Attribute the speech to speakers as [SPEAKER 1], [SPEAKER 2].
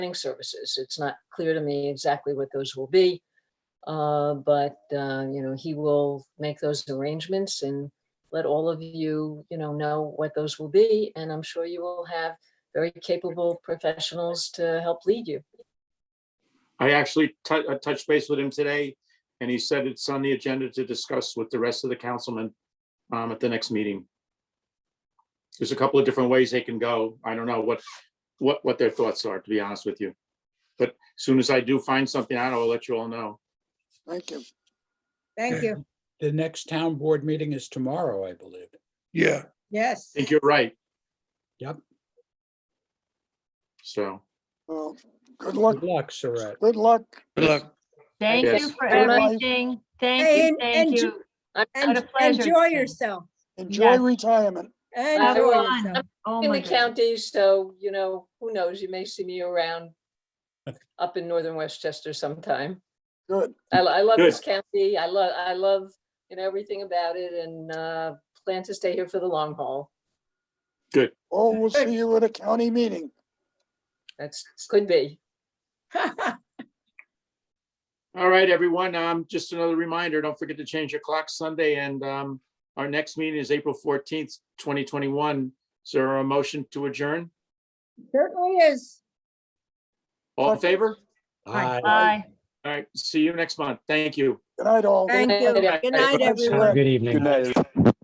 [SPEAKER 1] training services. It's not clear to me exactly what those will be. Uh, But, uh, you know, he will make those arrangements and let all of you, you know, know what those will be. And I'm sure you will have very capable professionals to help lead you.
[SPEAKER 2] I actually tou- I touched base with him today, and he said it's on the agenda to discuss with the rest of the councilmen um, at the next meeting. There's a couple of different ways they can go. I don't know what, what, what their thoughts are, to be honest with you. But as soon as I do find something out, I'll let you all know.
[SPEAKER 3] Thank you.
[SPEAKER 4] Thank you.
[SPEAKER 5] The next town board meeting is tomorrow, I believe.
[SPEAKER 6] Yeah,
[SPEAKER 4] Yes.
[SPEAKER 2] I think you're right.
[SPEAKER 5] Yep.
[SPEAKER 2] So,
[SPEAKER 3] Well, good luck,
[SPEAKER 5] Good luck, Saret.
[SPEAKER 3] good luck.
[SPEAKER 6] good luck.
[SPEAKER 7] Thank you
[SPEAKER 2] Yes.
[SPEAKER 7] for
[SPEAKER 3] Good luck.
[SPEAKER 7] everything.
[SPEAKER 4] Hey,
[SPEAKER 7] Thank you,
[SPEAKER 4] and- and
[SPEAKER 7] thank
[SPEAKER 4] ju-
[SPEAKER 7] you.
[SPEAKER 1] I'm
[SPEAKER 7] What a
[SPEAKER 4] And
[SPEAKER 7] pleasure.
[SPEAKER 4] enjoy yourself.
[SPEAKER 3] Enjoy
[SPEAKER 7] Yes.
[SPEAKER 3] retirement.
[SPEAKER 4] Enjoy
[SPEAKER 1] Bye, everyone.
[SPEAKER 4] yourself.
[SPEAKER 7] Oh
[SPEAKER 1] in
[SPEAKER 7] my
[SPEAKER 1] the
[SPEAKER 7] God.
[SPEAKER 1] county, so, you know, who knows? You may see me around up in northern Westchester sometime.
[SPEAKER 3] Good.
[SPEAKER 1] I, lo- I love this county. I love, I love, you know, everything about it and, uh, plan to stay here for the long haul.
[SPEAKER 3] Oh, we'll see you at a county meeting.
[SPEAKER 1] That's, could be.
[SPEAKER 2] all right, everyone, um, just another reminder, don't forget to change your clock Sunday, and um, our next meeting is April fourteenth, twenty twenty-one. Is there a motion to adjourn?
[SPEAKER 4] Certainly is.
[SPEAKER 2] All in favor?
[SPEAKER 5] Aye.
[SPEAKER 7] Bye.
[SPEAKER 2] All right, see you next month. Thank you.
[SPEAKER 3] Good night, all.
[SPEAKER 4] Thank you.
[SPEAKER 1] Good
[SPEAKER 4] Good night,
[SPEAKER 2] night.
[SPEAKER 4] everyone.
[SPEAKER 5] Good evening.
[SPEAKER 6] night.